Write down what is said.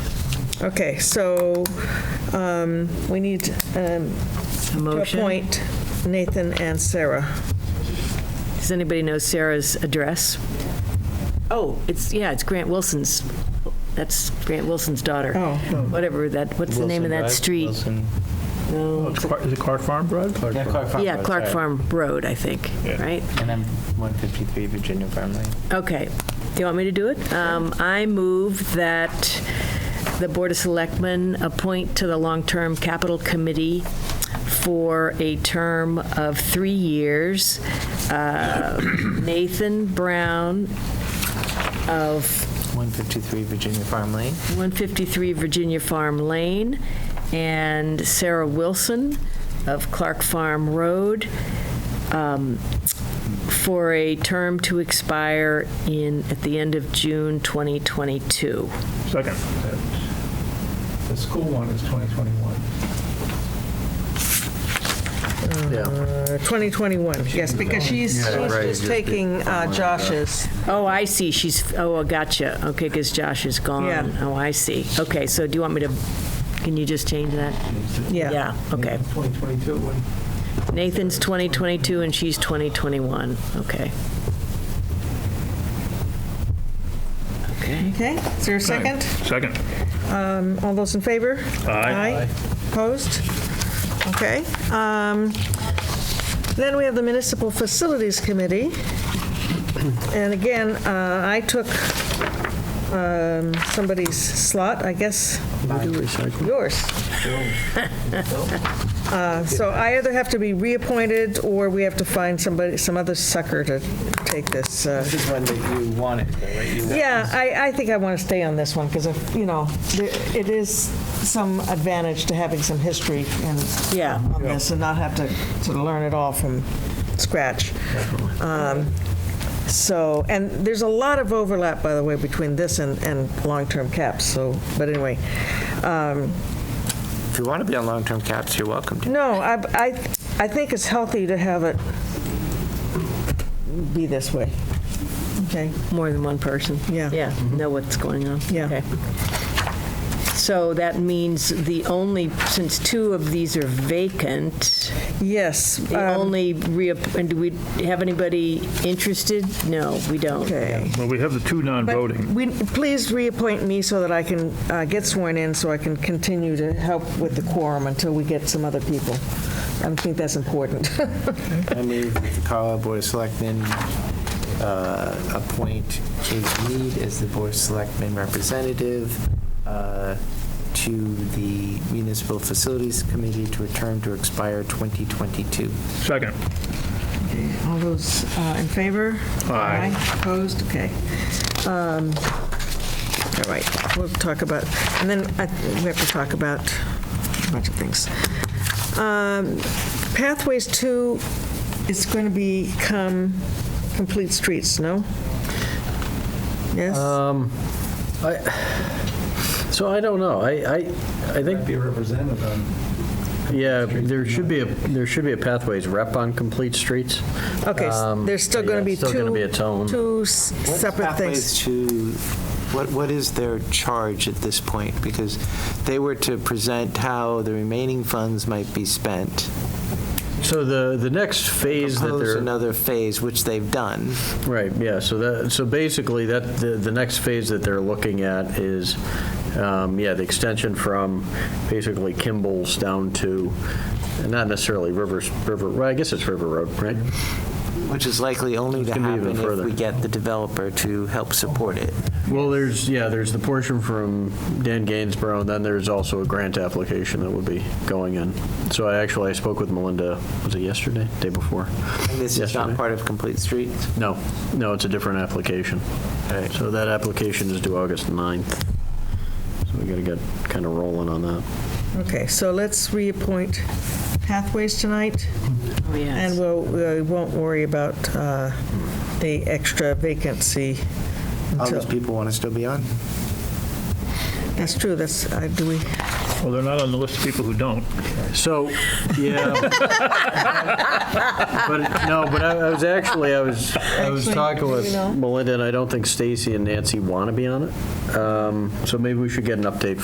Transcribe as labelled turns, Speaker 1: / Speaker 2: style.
Speaker 1: Okay, so um, we need um,
Speaker 2: A
Speaker 1: to
Speaker 2: motion.
Speaker 1: appoint Nathan and Sarah.
Speaker 2: Does anybody know Sarah's address? Oh, it's, yeah, it's Grant Wilson's. That's Grant Wilson's daughter.
Speaker 1: Oh.
Speaker 2: Whatever that, what's the name of that street? No,
Speaker 3: It's Clark- Is it Clark Farm Road?
Speaker 4: Yeah, Clark Farm.
Speaker 2: Yeah, Clark Farm Road, I think, right?
Speaker 4: And I'm 153 Virginia Farm Lane.
Speaker 2: Okay. Do you want me to do it? Um, I move that the Board of Selectmen appoint to the Long-Term Capital Committee for a term of three years uh, Nathan Brown of
Speaker 4: 153 Virginia Farm Lane.
Speaker 2: 153 Virginia Farm Lane, and Sarah Wilson of Clark Farm Road um, for a term to expire in, at the end of June 2022.
Speaker 3: Second.
Speaker 5: The school one is 2021.
Speaker 6: Yeah,
Speaker 1: Uh, 2021, yes, because she's she's
Speaker 6: Yeah, right,
Speaker 1: just
Speaker 6: just
Speaker 1: taking uh, Josh's.
Speaker 2: Oh, I see, she's, oh, gotcha, okay, because Josh is
Speaker 1: Yeah.
Speaker 2: gone. Oh, I see. Okay, so do you want me to, can you just change that?
Speaker 1: Yeah,
Speaker 2: Yeah, okay.
Speaker 5: 2022, when
Speaker 2: Nathan's 2022 and she's 2021, okay. Okay.
Speaker 1: okay, is there a second?
Speaker 3: Second.
Speaker 1: All those in favor? Aye. Opposed? Okay. um, Then we have the Municipal Facilities Committee. And again, uh, I took um, somebody's slot, I guess. Yours. Uh, So I either have to be reappointed, or we have to find somebody, some other sucker to take this. uh,
Speaker 4: This is one that you wanted, though, right? You-
Speaker 1: yeah, I, I think I want to stay on this one because, you know, there- it is some advantage to having some history and
Speaker 2: Yeah.
Speaker 1: on this and not have to, to learn it all from scratch. Um, So, and there's a lot of overlap, by the way, between this and, and long-term caps, so, but anyway.
Speaker 4: If you want to be on long-term caps, you're welcome to.
Speaker 1: No, I, I, I think it's healthy to have it be this way. Okay?
Speaker 2: More than one person?
Speaker 1: Yeah.
Speaker 2: Yeah, know what's going on.
Speaker 1: Yeah.
Speaker 2: Okay. So that means the only, since two of these are vacant,
Speaker 1: Yes.
Speaker 2: the
Speaker 1: um,
Speaker 2: only, reapp- and do we have anybody interested? No, we don't.
Speaker 1: Okay.
Speaker 3: Well, we have the two
Speaker 1: But
Speaker 3: non-voting.
Speaker 1: we- Please reappoint me so that I can uh, get sworn in, so I can continue to help with the quorum until we get some other people. I think that's important.
Speaker 4: I move that the Carlisle Board of Selectmen uh, appoint Kate Mead as the Board of Selectmen representative uh, to the Municipal Facilities Committee to a term to expire 2022.
Speaker 3: Second.
Speaker 1: All those uh, in favor?
Speaker 3: Aye.
Speaker 1: Opposed? Okay. Um, All right, we'll talk about, and then I- we have to talk about a bunch of things. Um, Pathways 2 is going to become Complete Streets, no? Yes?
Speaker 6: so I don't know, I, I, I
Speaker 5: I'd
Speaker 6: think,
Speaker 5: be represented on,
Speaker 6: yeah, there should be, a there should be a pathways rep on complete streets.
Speaker 1: Okay, s-
Speaker 6: Um,
Speaker 1: there's still
Speaker 6: but
Speaker 1: going
Speaker 6: yeah,
Speaker 1: to be
Speaker 6: it's still gonna
Speaker 1: two,
Speaker 6: be its own.
Speaker 1: two s-
Speaker 4: What's
Speaker 1: separate
Speaker 4: Pathways
Speaker 1: things.
Speaker 4: to, what, what is their charge at this point? Because they were to present how the remaining funds might be spent,
Speaker 6: So the, the next phase that
Speaker 4: propose
Speaker 6: they're,
Speaker 4: another phase, which they've done.
Speaker 6: right, yeah, so that, so basically that, the, the next phase that they're looking at is, um, yeah, the extension from basically Kimball's down to, not necessarily Rivers, River, well, I guess it's River Road, right?
Speaker 4: Which is likely only to
Speaker 6: gonna be even
Speaker 4: happen if
Speaker 6: further.
Speaker 4: we get the developer to help support it.
Speaker 6: Well, there's, yeah, there's the portion from Dan Gainsborough, and then there's also a grant application that would be going in. So I actually, I spoke with Melinda, was it yesterday, day before?
Speaker 4: And This is
Speaker 6: Yesterday.
Speaker 4: not part of Complete Streets.
Speaker 6: No, no, it's a different application. So that application is due August 9th. So we gotta get kind of rolling on that.
Speaker 1: Okay, so let's reappoint Pathways tonight,
Speaker 2: Oh,
Speaker 1: and
Speaker 2: yes.
Speaker 1: we'll, we won't worry about uh, the extra vacancy.
Speaker 4: All those
Speaker 1: until-
Speaker 4: people want to still be on.
Speaker 1: That's true, that's, uh, do we,
Speaker 3: Well, they're not on the list of people who don't.
Speaker 6: So, yeah. But, no, but I I was actually, I was, I was
Speaker 1: Actually,
Speaker 6: talking
Speaker 1: you
Speaker 6: with
Speaker 1: know.
Speaker 6: Melinda, and I don't think Stacy and Nancy want to be on it. Um, So maybe we should get an update